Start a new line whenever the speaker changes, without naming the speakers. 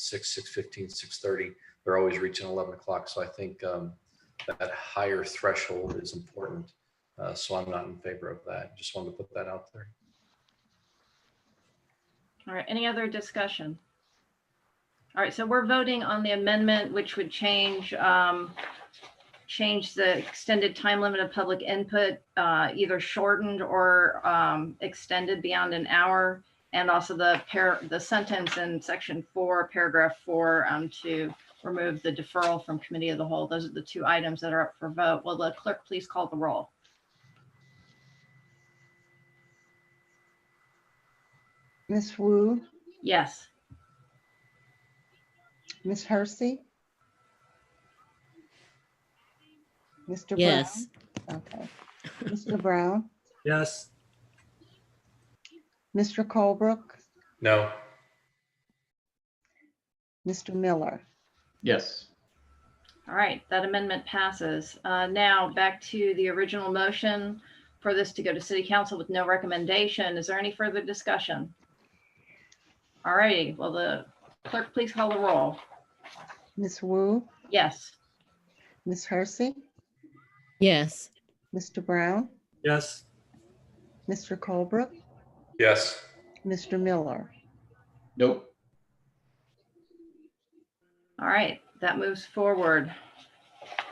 six, six fifteen, six thirty. They're always reaching eleven o'clock. So I think um, that higher threshold is important. Uh, so I'm not in favor of that. Just wanted to put that out there.
All right, any other discussion? All right, so we're voting on the amendment, which would change, um, change the extended time limit of public input, uh, either shortened or, um, extended beyond an hour. And also the pair, the sentence in section four, paragraph four, um, to remove the deferral from committee of the whole. Those are the two items that are up for vote. Will the clerk please call the roll?
Miss Wu,
Yes.
Miss Hersey? Mr. Brown?
Yes,
Okay. Mr. Brown,
Yes,
Mr. Colebrook,
No,
Mr. Miller.
Yes,
All right, that amendment passes. Uh, Now, back to the original motion for this to go to city council with no recommendation. Is there any further discussion? All righty, will the clerk please call the roll?
Miss Wu,
Yes.
Miss Hersey,
yes,
Mr. Brown,
yes,
Mr. Colebrook,
yes,
Mr. Miller.
nope,
All right, that moves forward.